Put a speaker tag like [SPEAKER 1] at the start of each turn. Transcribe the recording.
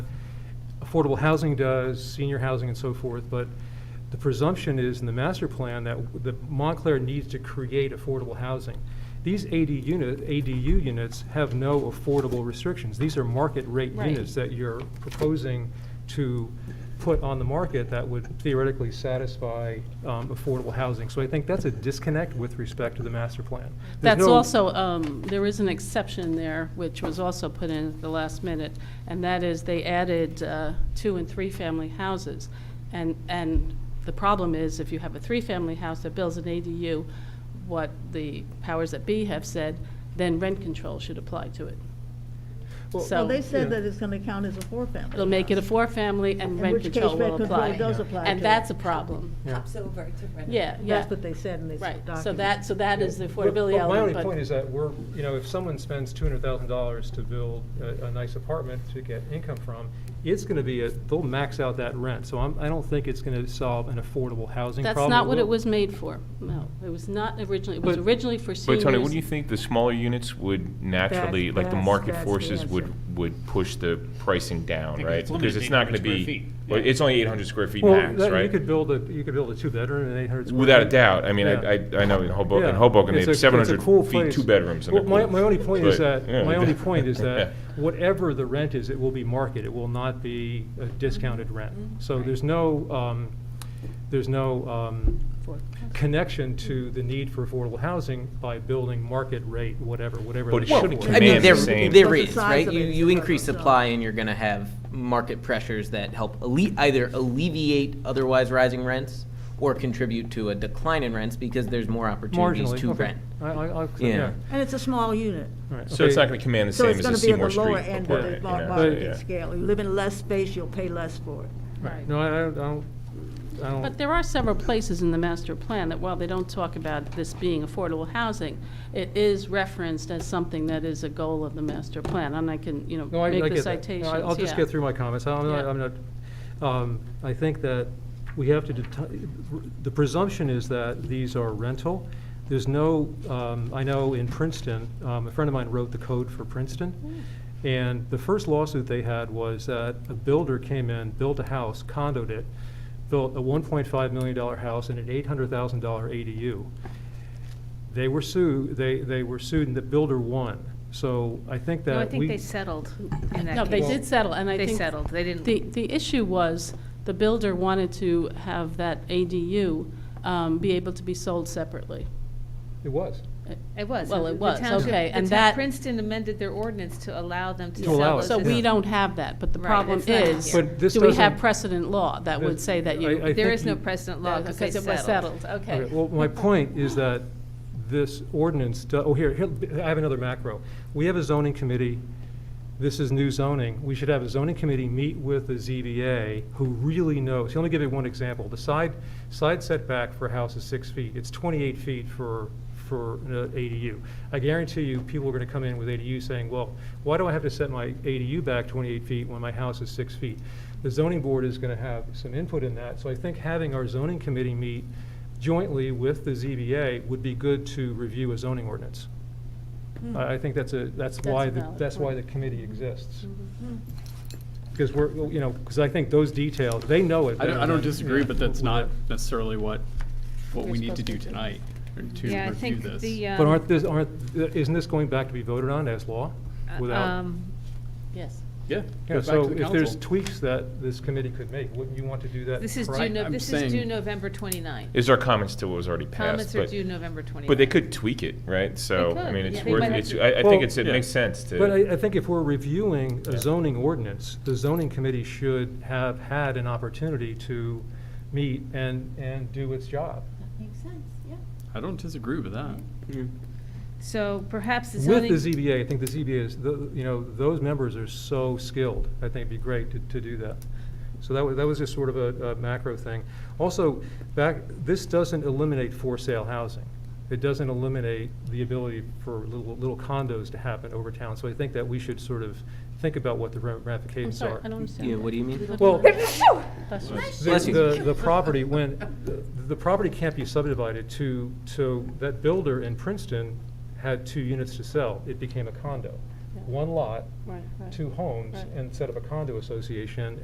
[SPEAKER 1] affordable housing does, senior housing and so forth, but the presumption is in the master plan that, that Montclair needs to create affordable housing. These AD unit, ADU units have no affordable restrictions. These are market rate
[SPEAKER 2] Right.
[SPEAKER 1] units that you're proposing to put on the market that would theoretically satisfy um, affordable housing. So I think that's a disconnect with respect to the master plan. There's
[SPEAKER 2] That's
[SPEAKER 1] no-
[SPEAKER 2] also, um, there is an exception there, which was also put in at the last minute, and that is they added uh, two and three-family houses. And, and the problem is, if you have a three-family house that builds an ADU, what the powers that be have said, then rent control should apply to it.
[SPEAKER 1] Well-
[SPEAKER 2] So
[SPEAKER 3] Well, they
[SPEAKER 1] Yeah.
[SPEAKER 3] said that it's gonna count as a four-family.
[SPEAKER 2] it'll make it a
[SPEAKER 3] house.
[SPEAKER 2] four-family, and
[SPEAKER 3] In
[SPEAKER 2] rent
[SPEAKER 3] which case,
[SPEAKER 2] control
[SPEAKER 3] rent
[SPEAKER 2] will
[SPEAKER 3] control
[SPEAKER 2] apply.
[SPEAKER 3] does apply
[SPEAKER 2] And
[SPEAKER 3] to
[SPEAKER 2] that's a
[SPEAKER 3] it.
[SPEAKER 2] problem.
[SPEAKER 1] Yeah.
[SPEAKER 4] Pops over to rent.
[SPEAKER 2] Yeah, yeah.
[SPEAKER 3] That's what they said in this
[SPEAKER 2] Right,
[SPEAKER 3] document.
[SPEAKER 2] so that, so that is the
[SPEAKER 1] But-
[SPEAKER 2] affordability
[SPEAKER 1] But my
[SPEAKER 2] element,
[SPEAKER 1] only
[SPEAKER 2] but-
[SPEAKER 1] point is that we're, you know, if someone spends two hundred thousand dollars to build a, a nice apartment to get income from, it's gonna be a, they'll max out that rent, so I'm, I don't think it's gonna solve an affordable housing
[SPEAKER 2] That's
[SPEAKER 1] problem.
[SPEAKER 2] not what it
[SPEAKER 1] will-
[SPEAKER 2] was made for. No, it was not originally, it was
[SPEAKER 1] But-
[SPEAKER 2] originally for seniors.
[SPEAKER 5] But Tony, wouldn't you think the smaller units would naturally, like the
[SPEAKER 3] that's-
[SPEAKER 5] market
[SPEAKER 3] that's the
[SPEAKER 5] forces
[SPEAKER 3] answer.
[SPEAKER 5] would, would push the pricing down,
[SPEAKER 6] Yeah,
[SPEAKER 5] right?
[SPEAKER 6] it's limited
[SPEAKER 5] Because it's
[SPEAKER 6] to
[SPEAKER 5] not going to
[SPEAKER 6] 800 square
[SPEAKER 5] be,
[SPEAKER 6] feet.
[SPEAKER 5] well,
[SPEAKER 6] Yeah.
[SPEAKER 5] it's only 800 square feet
[SPEAKER 1] Well,
[SPEAKER 5] max,
[SPEAKER 1] that- You
[SPEAKER 5] right?
[SPEAKER 1] could build a, you could build a two-bedredroom and eight hundred square.
[SPEAKER 5] Without a
[SPEAKER 1] feet.
[SPEAKER 5] doubt. I mean,
[SPEAKER 1] Yeah.
[SPEAKER 5] I, I I know in Hoboken,
[SPEAKER 1] Yeah.
[SPEAKER 5] Hoboken, they
[SPEAKER 1] It's a-
[SPEAKER 5] have
[SPEAKER 1] it's a
[SPEAKER 5] 700
[SPEAKER 1] cool
[SPEAKER 5] feet,
[SPEAKER 1] place.
[SPEAKER 5] two bedrooms and a
[SPEAKER 1] Well, my,
[SPEAKER 5] pool.
[SPEAKER 1] my only point is
[SPEAKER 5] But,
[SPEAKER 1] that,
[SPEAKER 5] yeah.
[SPEAKER 1] my only point is that whatever the rent is, it will be market. It will not be a discounted rent. So there's no, um, there's no, um, connection to the need for affordable housing by building market rate, whatever, whatever.
[SPEAKER 5] But
[SPEAKER 1] that
[SPEAKER 5] it
[SPEAKER 1] should
[SPEAKER 5] shouldn't
[SPEAKER 1] be.
[SPEAKER 5] Well,
[SPEAKER 7] I mean,
[SPEAKER 5] Command the
[SPEAKER 7] there,
[SPEAKER 5] same.
[SPEAKER 7] there
[SPEAKER 3] But the
[SPEAKER 7] is,
[SPEAKER 3] size
[SPEAKER 7] right?
[SPEAKER 3] of
[SPEAKER 7] You,
[SPEAKER 3] it's
[SPEAKER 7] you
[SPEAKER 3] different,
[SPEAKER 7] increase
[SPEAKER 3] so-
[SPEAKER 7] supply and you're gonna have market pressures that help alle- either alleviate otherwise rising rents or contribute to a decline in rents because there's more opportunities
[SPEAKER 1] Marginally,
[SPEAKER 7] to
[SPEAKER 1] okay.
[SPEAKER 7] rent.
[SPEAKER 1] I, I, I'll accept-
[SPEAKER 7] Yeah.
[SPEAKER 1] yeah.
[SPEAKER 3] And it's a small unit.
[SPEAKER 1] All right,
[SPEAKER 5] So it's
[SPEAKER 1] okay.
[SPEAKER 5] not going to command the
[SPEAKER 3] So
[SPEAKER 5] same
[SPEAKER 3] it's
[SPEAKER 5] as a
[SPEAKER 3] gonna be at
[SPEAKER 5] Seymour
[SPEAKER 3] the
[SPEAKER 5] Street
[SPEAKER 3] lower end of the
[SPEAKER 5] apartment.
[SPEAKER 3] mar-
[SPEAKER 5] you know? Yeah.
[SPEAKER 3] market scale. You live in less space, you'll pay less for it.
[SPEAKER 2] Right.
[SPEAKER 1] No, I, I don't- I don't, I don't.
[SPEAKER 2] But there are several places in the master plan that while they don't talk about this being affordable housing, it is referenced as something that is a goal of the master plan, and I can, you
[SPEAKER 1] No,
[SPEAKER 2] know,
[SPEAKER 1] I, I
[SPEAKER 2] make the
[SPEAKER 1] get that. No,
[SPEAKER 2] citations,
[SPEAKER 1] I- I'll just
[SPEAKER 2] yeah.
[SPEAKER 1] get through my comments. I'm not,
[SPEAKER 2] Yeah.
[SPEAKER 1] I'm not, um, I think that we have to, deti- the presumption is that these are rental. There's no, um, I know in Princeton, um, a friend of mine wrote the code for Princeton.
[SPEAKER 2] Hmm.
[SPEAKER 1] And the first lawsuit they had was that a builder came in, built a house, condoed it, built a one point five million dollar house and an eight hundred thousand dollar ADU. They were sued, they, they were sued and the builder won. So I think that
[SPEAKER 8] No,
[SPEAKER 1] we.
[SPEAKER 8] I think they settled in that
[SPEAKER 2] No, they
[SPEAKER 8] case.
[SPEAKER 2] did settle, and I
[SPEAKER 8] They
[SPEAKER 2] think.
[SPEAKER 8] settled, they didn't-
[SPEAKER 2] The, the issue was, the builder wanted to have that ADU um, be able to be sold separately.
[SPEAKER 1] It was.
[SPEAKER 8] It was.
[SPEAKER 2] Well, it
[SPEAKER 8] The
[SPEAKER 2] was,
[SPEAKER 8] township-
[SPEAKER 2] okay,
[SPEAKER 8] the
[SPEAKER 2] and
[SPEAKER 8] town-
[SPEAKER 2] that-
[SPEAKER 8] Princeton amended their ordinance to allow them to
[SPEAKER 1] To
[SPEAKER 8] sell
[SPEAKER 1] allow
[SPEAKER 8] those.
[SPEAKER 1] it,
[SPEAKER 2] So
[SPEAKER 8] as-
[SPEAKER 1] yeah.
[SPEAKER 2] we don't have that, but the
[SPEAKER 8] Right,
[SPEAKER 2] problem
[SPEAKER 8] it's not
[SPEAKER 2] is,
[SPEAKER 8] here.
[SPEAKER 1] But this
[SPEAKER 2] do we have
[SPEAKER 1] doesn't-
[SPEAKER 2] precedent law that would
[SPEAKER 1] That-
[SPEAKER 2] say that
[SPEAKER 1] I- I
[SPEAKER 2] you?
[SPEAKER 1] think
[SPEAKER 8] There is no
[SPEAKER 1] you-
[SPEAKER 8] precedent law because they
[SPEAKER 2] it was settled, okay.
[SPEAKER 1] Okay, well, my point is that this ordinance, do- oh, here, here, I have another macro. We have a zoning committee, this is new zoning, we should have a zoning committee meet with the ZBA who really knows. Let me give you one example, the side, side setback for a house is six feet, it's twenty-eight feet for, for an uh, ADU. I guarantee you, people are gonna come in with ADU saying, well, why do I have to set my ADU back twenty-eight feet when my house is six feet? The zoning board is gonna have some input in that, so I think having our zoning committee meet jointly with the ZBA would be good to review a zoning ordinance.
[SPEAKER 2] Hmm.
[SPEAKER 8] Hmm.
[SPEAKER 1] I, I think that's a, that's
[SPEAKER 2] That's
[SPEAKER 1] why,
[SPEAKER 2] a
[SPEAKER 1] the
[SPEAKER 2] valid
[SPEAKER 1] that's why the
[SPEAKER 2] point.
[SPEAKER 1] committee exists.
[SPEAKER 8] Mm-hmm.
[SPEAKER 3] Hmm.
[SPEAKER 1] Because we're, you know, because I think those details, they know it.
[SPEAKER 6] I don't,
[SPEAKER 1] better
[SPEAKER 6] I don't
[SPEAKER 1] than,
[SPEAKER 6] disagree,
[SPEAKER 1] yeah,
[SPEAKER 6] but that's
[SPEAKER 1] with
[SPEAKER 6] not
[SPEAKER 1] that.
[SPEAKER 6] necessarily what, what
[SPEAKER 2] We're
[SPEAKER 6] we need to
[SPEAKER 2] supposed to
[SPEAKER 6] do
[SPEAKER 2] do.
[SPEAKER 6] tonight, or
[SPEAKER 8] Yeah,
[SPEAKER 6] to
[SPEAKER 8] I
[SPEAKER 6] review
[SPEAKER 8] think
[SPEAKER 6] this.
[SPEAKER 8] the. um,
[SPEAKER 1] But aren't this, aren't, isn't this going back to be voted on as law
[SPEAKER 8] uh,
[SPEAKER 1] without?
[SPEAKER 8] um,
[SPEAKER 2] Yes.
[SPEAKER 6] Yeah.
[SPEAKER 1] Yeah,
[SPEAKER 6] goes back
[SPEAKER 1] so
[SPEAKER 6] to the
[SPEAKER 1] if there's
[SPEAKER 6] council.
[SPEAKER 1] tweaks that this committee could make, wouldn't you want to do that?
[SPEAKER 8] This is due,
[SPEAKER 1] prior-
[SPEAKER 8] no-
[SPEAKER 6] I'm
[SPEAKER 8] this
[SPEAKER 6] saying-
[SPEAKER 8] is due November 29th.
[SPEAKER 5] Is our comments to what was already passed?
[SPEAKER 8] Comments are
[SPEAKER 5] but-
[SPEAKER 8] due November 29th.
[SPEAKER 5] But they could tweak it, right? So, I
[SPEAKER 8] could,
[SPEAKER 5] mean,
[SPEAKER 8] yeah.
[SPEAKER 5] it's
[SPEAKER 8] They
[SPEAKER 5] worth,
[SPEAKER 8] might have
[SPEAKER 5] it's,
[SPEAKER 8] to-
[SPEAKER 5] I, I think
[SPEAKER 1] Well-
[SPEAKER 5] it's, it
[SPEAKER 6] Yeah.
[SPEAKER 5] makes sense to.
[SPEAKER 1] But I, I think if we're reviewing
[SPEAKER 5] Yeah.
[SPEAKER 1] a zoning ordinance, the zoning committee should have had an opportunity to meet and, and do its job.
[SPEAKER 4] Makes sense, yeah.
[SPEAKER 6] I don't disagree with that.
[SPEAKER 1] Mm-hmm.
[SPEAKER 8] So perhaps the
[SPEAKER 1] With
[SPEAKER 8] zoning.
[SPEAKER 1] the ZBA, I think the ZBA is, the- you know, those members are so skilled, I think it'd be great to, to do that. So that was, that was just sort of a, a macro thing. Also, back, this doesn't eliminate for-sale housing. It doesn't eliminate the ability for little, little condos to happen over town. So I think that we should sort of think about what the
[SPEAKER 2] I'm
[SPEAKER 1] ramifications are.
[SPEAKER 2] sorry, I don't understand.
[SPEAKER 7] Yeah, what do you mean?
[SPEAKER 1] Well,
[SPEAKER 2] That's what-
[SPEAKER 1] the,
[SPEAKER 7] Bless you.
[SPEAKER 1] the, the property, when, the, the property can't be subdivided to, to, that builder in Princeton had two units to sell. It became a condo.
[SPEAKER 2] Yeah.
[SPEAKER 1] One lot,
[SPEAKER 2] Right, right.
[SPEAKER 1] two homes,
[SPEAKER 2] Right.
[SPEAKER 1] and set up a condo association,